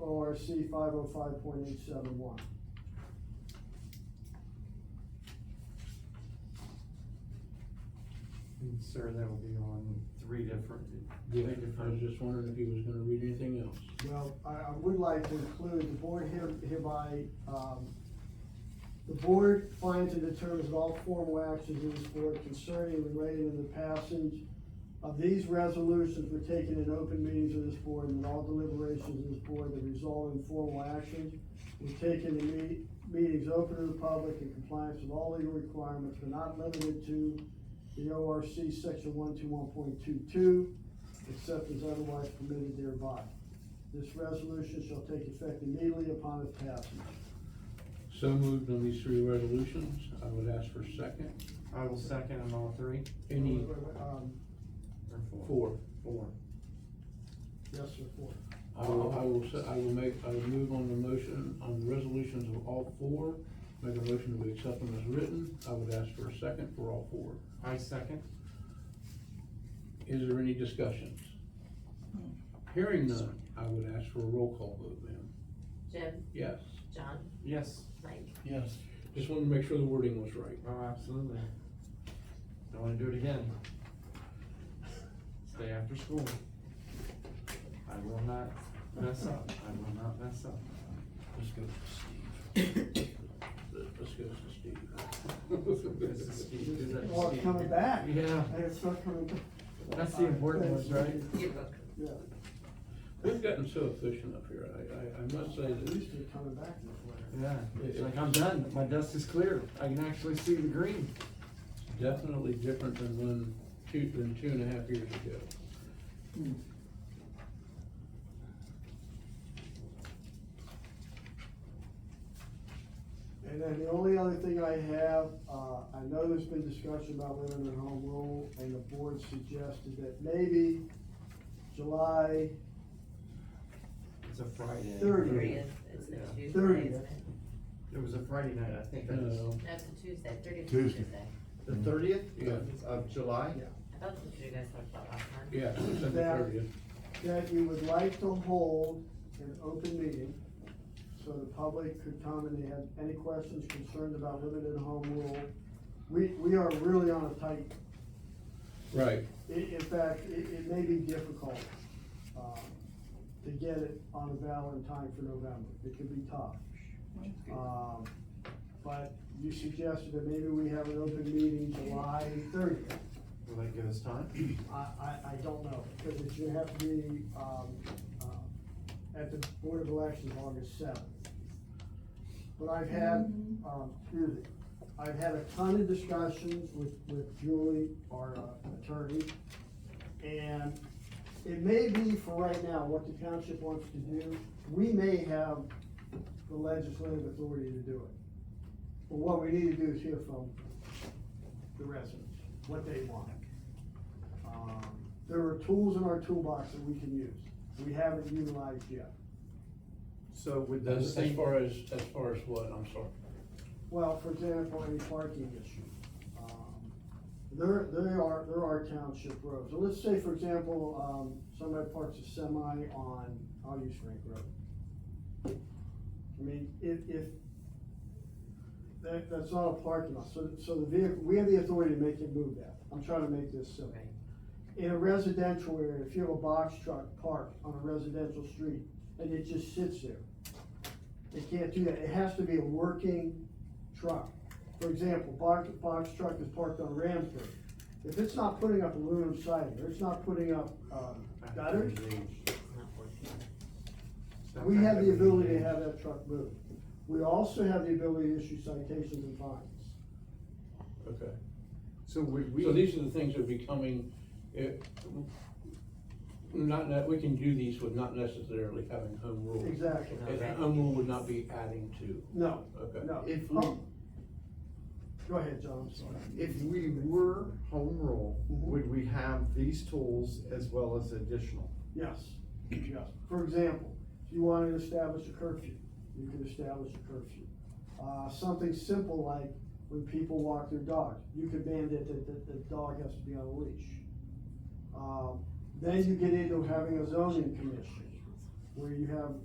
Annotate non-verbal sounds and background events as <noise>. ORC five oh five point eight seven one. And sir, that'll be on three different, Yeah, I was just wondering if he was gonna read anything else. Well, I, I would like to include, the board here- hereby, um, the board finds and determines that all formal actions in this board concerning and relating to the passage of these resolutions were taken in open meetings of this board, and that all deliberations of this board that result in formal actions were taken in meet, meetings open to the public in compliance with all legal requirements, but not limited to the ORC section one two one point two two, except as otherwise permitted thereby. This resolution shall take effect immediately upon its passage. So moved on these three resolutions, I would ask for a second, I will second on all three, any Um, or four? four. Four. Yes, sir, <laughs> four. I will, I will, se- I will make, I will move on the motion, on the resolutions of all four, make a motion to accept them as written, I would ask for a second for all four. I second. Is there any discussions? Hearing none, I would ask for a roll call vote, ma'am. Jim, Yes. John, Yes. Mike, Yes. Just wanted to make sure the wording was right. Oh, absolutely. Don't wanna do it again. Stay after school. I will not mess up, I will not mess up. Let's go to Steve. <coughs> Let's go to Steve. This <laughs> is Steve, is that Oh, it's Steve? coming back. Yeah. Hey, It's not coming back. That's the important ones, right? yearbook. Yeah, We've gotten so efficient up here, I, I, I must say at that least they're coming back this way. Yeah, it's like, I'm done, my desk is clear, I can actually see the green. it's definitely different than when, two, than two and a half years ago. And then the only other thing I have, uh, I know there's been discussion about women in home rule, and the board suggested that maybe July It's a Friday. Thirtieth. Thirtieth, it's the Yeah. Tuesday, isn't Thirtieth. it? It was a Friday night, I think, I just, No, That's a Tuesday, thirtieth Tuesday. Tuesday. the thirtieth Yeah. of July? Yeah. I thought that's what you guys talked about last time. yeah, December That- thirtieth. that you would like to hold an open meeting so the public could come and they have any questions, concerns about limited home rule. We, we are really on a tight, Right, i- in fact, it, it may be difficult, um, to get it on a valid time for November. It could be tough. Um, but you suggested that maybe we have an open meeting July thirtieth. Will that give us time? I, I, I don't know, because it should have to be, um, uh, at the Board of Elections, August seventh. But I've had, um, excuse me, I've had a ton of discussions with, with Julie, our uh, attorney, and it may be for right now, what the township wants to do, we may have the legislative authority to do it. But what we need to do is hear from the residents, what they want. Um, There are tools in our toolbox that we can use, we haven't utilized yet. So would the as, as same, far as, as far as what, I'm sorry. Well, for example, any parking issue. Um, There, there are, there are township roads, so let's say, for example, um, somebody parks a semi on, I'll use Frank Road. I mean, if, if, that, that's not a parking lot, so, so the vehicle, we have the authority to make it move that, I'm trying to make this simple. Right. in a residential area, if you have a box truck parked on a residential street and it just sits there, they can't do that. It has to be a working truck. For example, box, box truck is parked on Ramsburg. If it's not putting up aluminum siding, or it's not putting up, um, gutters, It's not working. we have the ability to have that truck moved. We also have the ability to issue citations and fines. Okay. So would So we, these are the things that are becoming, it, not, that, we can do these with not necessarily having home rule. Exactly. And home rule would not be adding to, No, okay? no. If we- Oh. Go ahead, John, I'm sorry. if we were home rule, Mhm. would we have these tools as well as additional? Yes, yes. For example, if you wanted to establish a curfew, you could establish a curfew. Uh, something simple like when people walk their dog, you could mandate that, that the dog has to be on a leash. Um, then you get into having a zoning commission, where you have